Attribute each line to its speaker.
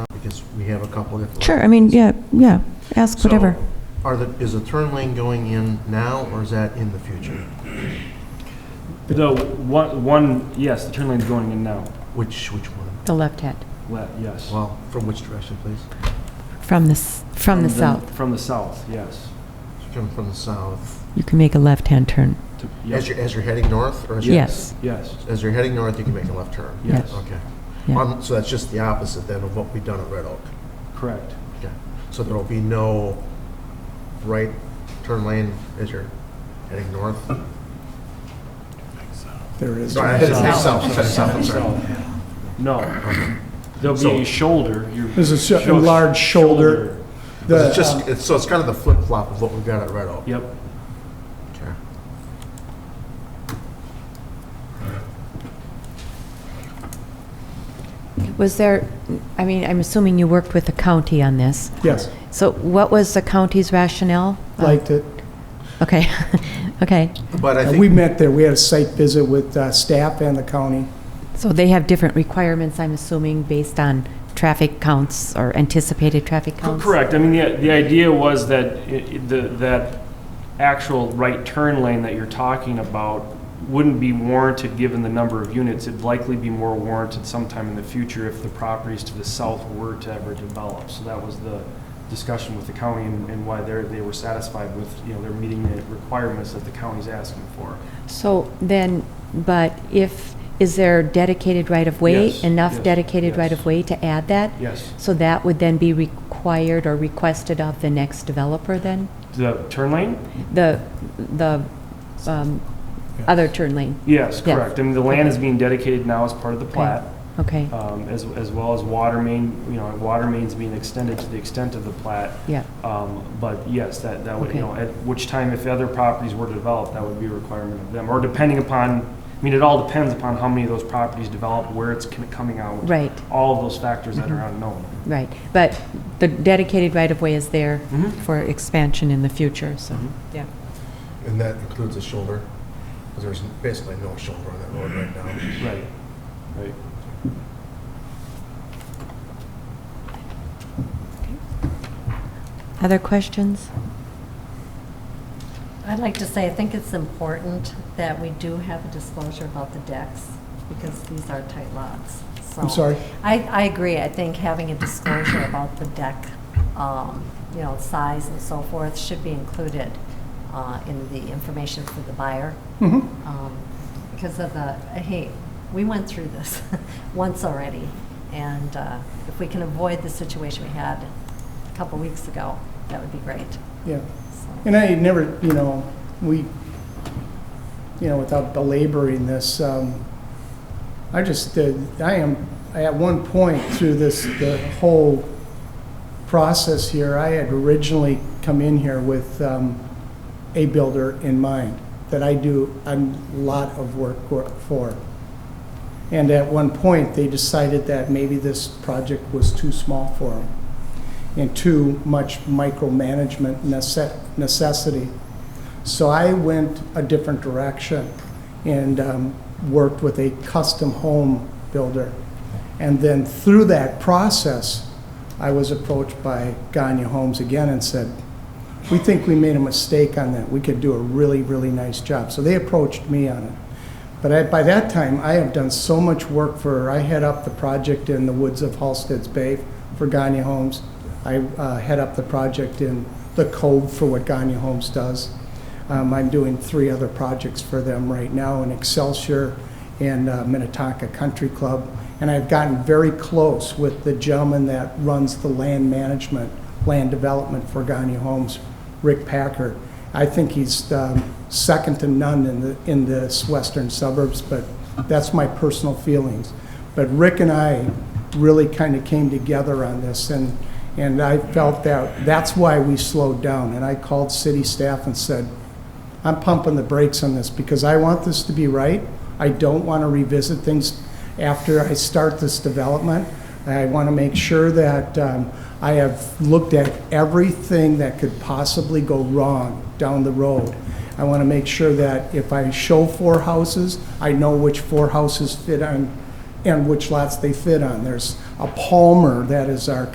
Speaker 1: because we have a couple of...
Speaker 2: Sure, I mean, yeah, yeah, ask
Speaker 1: So,
Speaker 2: whatever.
Speaker 1: Are the, is the turn lane going in now, or is that in the future?
Speaker 3: So one, one, yes, the turn lane's going in now.
Speaker 1: Which, which one?
Speaker 4: The left hand,
Speaker 3: Le- yes.
Speaker 1: Well, from which direction, please?
Speaker 4: from the, s- from the south.
Speaker 3: From the south, yes.
Speaker 1: It's Coming from the south.
Speaker 4: You can make a left-hand turn.
Speaker 3: To- yep.
Speaker 1: As you're, as you're heading north, or as you're...
Speaker 4: Yes.
Speaker 3: Yes,
Speaker 1: As you're heading north, you can make a left turn?
Speaker 3: yes,
Speaker 1: Okay.
Speaker 4: Yeah.
Speaker 1: Um, So that's just the opposite then of what we've done at Red Oak?
Speaker 3: correct.
Speaker 1: Okay. So there'll be no right turn lane as you're heading north?
Speaker 5: There is.
Speaker 1: Sorry, I headed south, headed south, I'm sorry.
Speaker 3: So, No. There'll be a shoulder. your-
Speaker 5: There's a sho- a
Speaker 3: sho-
Speaker 5: large shoulder. The,
Speaker 1: It's
Speaker 5: uh,
Speaker 1: just, it's, so it's kind of the flip-flop of what we've got at Red Oak?
Speaker 3: Yep,
Speaker 1: Okay.
Speaker 4: Was there, I mean, I'm assuming you worked with the county on this.
Speaker 5: Yes,
Speaker 4: So what was the county's rationale? Uh,
Speaker 5: liked it.
Speaker 4: Okay, okay.
Speaker 1: But I
Speaker 5: And
Speaker 1: think...
Speaker 5: uh, We met there, we had a site visit with uh, staff and the county.
Speaker 4: So they have different requirements, I'm assuming, based on traffic counts or anticipated traffic
Speaker 3: Co-
Speaker 4: counts?
Speaker 3: correct. I mean, the, the idea was that, i- i- the that actual right turn lane that you're talking about wouldn't be warranted given the number of units. It'd likely be more warranted sometime in the future if the properties to the south were to ever develop. So that was the discussion with the county and and why they're, they were satisfied with, you know, they're meeting the requirements that the county's asking for.
Speaker 4: So then, but if, is there dedicated right-of-way?
Speaker 3: Yes,
Speaker 4: Enough
Speaker 3: yes,
Speaker 4: dedicated
Speaker 3: yes.
Speaker 4: right-of-way to add that?
Speaker 3: Yes,
Speaker 4: So that would then be required or requested of the next developer then?
Speaker 3: the turn lane?
Speaker 4: The, the um, other turn lane,
Speaker 3: Yes,
Speaker 4: Yes.
Speaker 3: correct. I mean, the land is being dedicated now as part of the plat.
Speaker 4: okay,
Speaker 3: um, as, as well as water main, you know, water mains being extended to the extent of the plat.
Speaker 4: yeah,
Speaker 3: Um, But yes, that, that would, you
Speaker 4: Okay.
Speaker 3: know, at which time if other properties were developed, that would be a requirement of them. Or depending upon, I mean, it all depends upon how many of those properties develop, where it's con- coming out.
Speaker 4: right, Mm-hmm.
Speaker 3: All of those factors that are unknown.
Speaker 4: right. But the dedicated right-of-way is there
Speaker 3: Mhm.
Speaker 4: for expansion in the future, so.
Speaker 1: And that includes a shoulder, because there's basically no shoulder on that road right now.
Speaker 3: Right, right.
Speaker 4: Other questions?
Speaker 6: I'd like to say, I think it's important that we do have a disclosure about the decks, because these are tight lots, so.
Speaker 5: I'm sorry.
Speaker 6: I, I agree, I think having a disclosure about the deck, um, you know, size and so forth should be included uh, in the information for the buyer,
Speaker 1: Mm-hmm.
Speaker 5: Mhm.
Speaker 6: um, because of the, hey, we went through this once already, and uh, if we can avoid the situation we had a couple weeks ago, that would be great,
Speaker 5: Yeah.
Speaker 6: so.
Speaker 5: And I never, you know, we, you know, without belaboring this, um, I just, uh, I am, at one point through this, the whole process here, I had originally come in here with um, a builder in mind that I do a lot of work for. And at one point, they decided that maybe this project was too small for them and too much micromanagement necess- necessity. So I went a different direction and um, worked with a custom home builder. And then through that process, I was approached by Ganya Homes again and said, we think we made a mistake on that. We could do a really, really nice job. So they approached me on it. But I, by that time, I have done so much work for, I head up the project in the woods of Halstead's Bay for Gagne Homes. I uh, head up the project in the Cove for what Gagne Homes does. Um, I'm doing three other projects for them right now in Excelsior and uh, Minnetonka Country Club. And I've gotten very close with the gentleman that runs the land management, land development for Gagne Homes, Rick Packer. I think he's um, second to none in the, in this western suburbs, but that's my personal feelings. But Rick and I really kind of came together on this, and, and I felt that, that's why we slowed down. And I called city staff and said, I'm pumping the brakes on this because I want this to be right. I don't want to revisit things after I start this development. I want to make sure that um, I have looked at everything that could possibly go wrong down the road. I want to make sure that if I show four houses, I know which four houses fit on and which lots they fit on. There's a Palmer that is our